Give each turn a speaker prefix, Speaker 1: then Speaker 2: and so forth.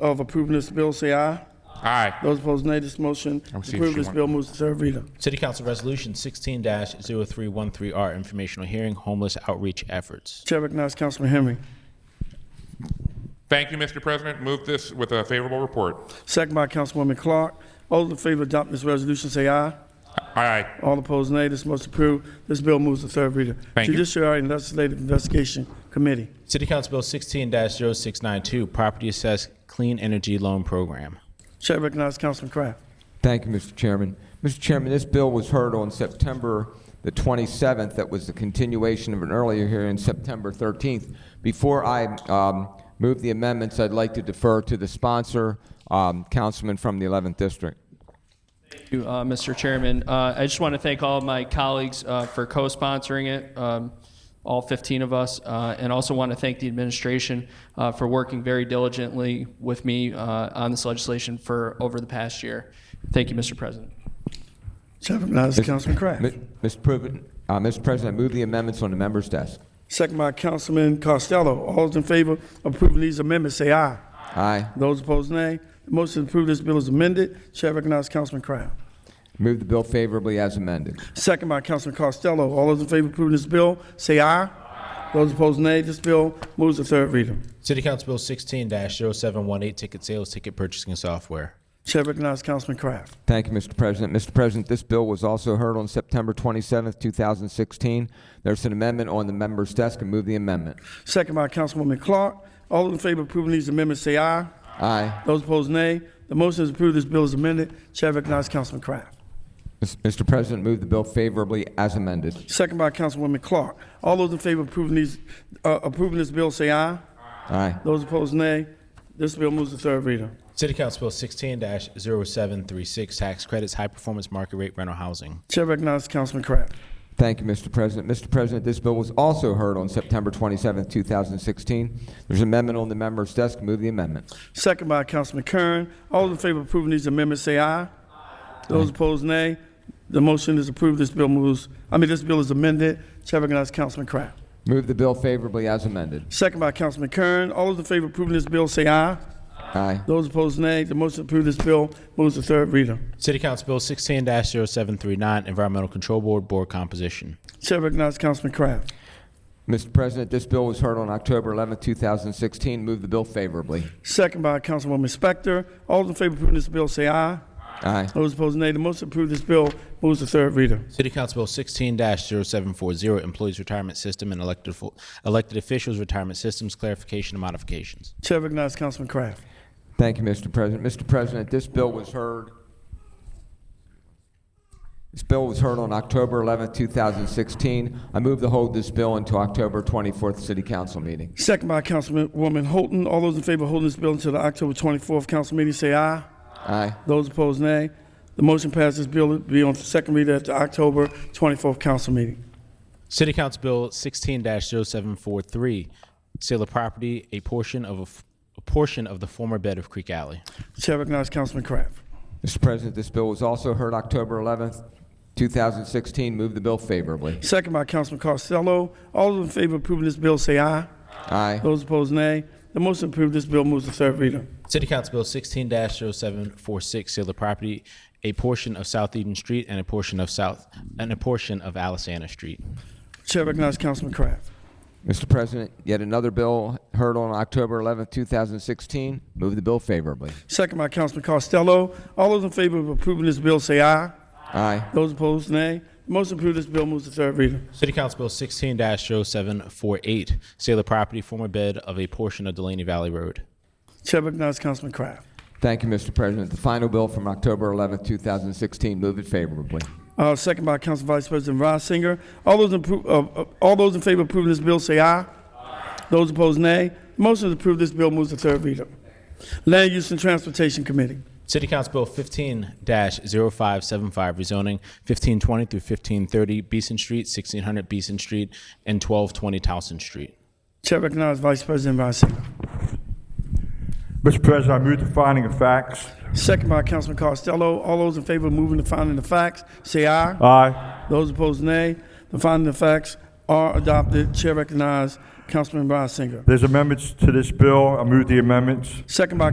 Speaker 1: of approving this bill, say aye.
Speaker 2: Aye.
Speaker 1: Those opposed, nay. This motion
Speaker 2: I'm
Speaker 1: to
Speaker 2: seeing
Speaker 1: approve
Speaker 2: she
Speaker 1: this
Speaker 2: want-
Speaker 1: bill moves to third reader.
Speaker 3: City Council Resolution 16-0313R, informational hearing, homeless outreach efforts.
Speaker 1: Chair recognizes Councilman Henry.
Speaker 2: Thank you, Mr. President. Move this with a favorable report.
Speaker 1: Second by Councilwoman Clark. All those in favor of adopting this resolution, say aye.
Speaker 2: Aye.
Speaker 1: All opposed, nay. This motion approved. This bill moves to third reader.
Speaker 2: Thank you.
Speaker 1: Judiciary and Legislative Investigation Committee.
Speaker 3: City Council Bill 16-0692, property assessed clean energy loan program.
Speaker 1: Chair recognizes Councilman Kraft.
Speaker 4: Thank you, Mr. Chairman. Mr. Chairman, this bill was heard on September the 27th. That was the continuation of an earlier hearing, September 13th. Before I um, move the amendments, I'd like to defer to the sponsor, um, Councilman from the 11th District.
Speaker 5: Thank you, uh, Mr. Chairman. Uh, I just want to thank all of my colleagues uh, for co-sponsoring it, um, all 15 of us, uh, and also want to thank the administration uh, for working very diligently with me uh, on this legislation for over the past year. Thank you, Mr. President.
Speaker 1: Chair recognizes Councilman Kraft.
Speaker 4: M- Mr. Prov- uh, Mr. President, I move the amendments on the member's desk.
Speaker 1: Second by Councilman Costello. All those in favor of approving these amendments, say aye.
Speaker 4: Aye.
Speaker 1: Those opposed, nay. The motion to approve this bill is amended. Chair recognizes Councilman Kraft.
Speaker 4: Move the bill favorably as amended.
Speaker 1: Second by Councilman Costello. All those in favor of approving this bill, say aye. Those opposed, nay. This bill moves to third reader.
Speaker 3: City Council Bill 16-0718, ticket sales, ticket purchasing software.
Speaker 1: Chair recognizes Councilman Kraft.
Speaker 4: Thank you, Mr. President. Mr. President, this bill was also heard on September 27th, 2016. There's an amendment on the member's desk. I move the amendment.
Speaker 1: Second by Councilwoman Clark. All those in favor of approving these amendments, say aye.
Speaker 4: Aye.
Speaker 1: Those opposed, nay. The motion is approved. This bill is amended. Chair recognizes Councilman Kraft.
Speaker 4: Mis- Mr. President, move the bill favorably as amended.
Speaker 1: Second by Councilwoman Clark. All those in favor of approving these, uh, approving this bill, say aye.
Speaker 4: Aye.
Speaker 1: Those opposed, nay. This bill moves to third reader.
Speaker 3: City Council Bill 16-0736, tax credits, high performance market rate rental housing.
Speaker 1: Chair recognizes Councilman Kraft.
Speaker 4: Thank you, Mr. President. Mr. President, this bill was also heard on September 27, 2016. There's an amendment on the member's desk. Move the amendment.
Speaker 1: Second by Councilman Kern. All those in favor of approving these amendments, say aye. Those opposed, nay. The motion is approved. This bill moves, I mean, this bill is amended. Chair recognizes Councilman Kraft.
Speaker 4: Move the bill favorably as amended.
Speaker 1: Second by Councilman Kern. All those in favor of approving this bill, say aye.
Speaker 4: Aye.
Speaker 1: Those opposed, nay. The motion to approve this bill moves to third reader.
Speaker 3: City Council Bill 16-0739, environmental control board, board composition.
Speaker 1: Chair recognizes Councilman Kraft.
Speaker 4: Mr. President, this bill was heard on October 11, 2016. Move the bill favorably.
Speaker 1: Second by Councilwoman Spector. All those in favor of approving this bill, say aye.
Speaker 4: Aye.
Speaker 1: Those opposed, nay. The motion to approve this bill moves to third reader.
Speaker 3: City Council Bill 16-0740, employees retirement system and elected, fo- elected officials retirement systems, clarification and modifications.
Speaker 1: Chair recognizes Councilman Kraft.
Speaker 4: Thank you, Mr. President. Mr. President, this bill was heard. This bill was heard on October 11, 2016. I move to hold this bill until October 24th City Council meeting.
Speaker 1: Second by Councilwoman Holton. All those in favor of holding this bill until the October 24th council meeting, say aye.
Speaker 4: Aye.
Speaker 1: Those opposed, nay. The motion passes. Bill will be on second reader at the October 24th council meeting.
Speaker 3: City Council Bill 16-0743, sale of property, a portion of a, f- a portion of the former bed of Creek Alley.
Speaker 1: Chair recognizes Councilman Kraft.
Speaker 4: Mr. President, this bill was also heard October 11th, 2016. Move the bill favorably.
Speaker 1: Second by Councilman Costello. All those in favor of approving this bill, say aye.
Speaker 4: Aye.
Speaker 1: Those opposed, nay. The motion to approve this bill moves to third reader.
Speaker 3: City Council Bill 16-0746, sale of property, a portion of South Eden Street and a portion of South, and a portion of Alisana Street.
Speaker 1: Chair recognizes Councilman Kraft.
Speaker 4: Mr. President, yet another bill heard on October 11th, 2016. Move the bill favorably.
Speaker 1: Second by Councilman Costello. All those in favor of approving this bill, say aye.
Speaker 4: Aye.
Speaker 1: Those opposed, nay. The motion to approve this bill moves to third reader.
Speaker 3: City Council Bill 16-0748, sale of property, former bed of a portion of Delaney Valley Road.
Speaker 1: Chair recognizes Councilman Kraft.
Speaker 4: Thank you, Mr. President. The final bill from October 11th, 2016. Move it favorably.
Speaker 1: Uh, second by Council Vice President Reisinger. All those, appro- uh, uh, all those in favor of approving this bill say aye. Those opposed, nay. Motion to approve this bill moves to third reader. Land Use and Transportation Committee.
Speaker 3: City Council Bill 15-0575, rezoning 1520 through 1530 Beeson Street, 1600 Beeson Street, and 1220 Towson Street.
Speaker 1: Chair recognizes Vice President Reisinger.
Speaker 6: Mr. President, I move the finding of facts.
Speaker 1: Second by Councilman Costello. All those in favor of moving the finding of facts say aye.
Speaker 6: Aye.
Speaker 1: Those opposed, nay. The finding of facts are adopted. Chair recognizes Councilman Reisinger.
Speaker 6: There's amendments to this bill. I move the amendments.
Speaker 1: Second by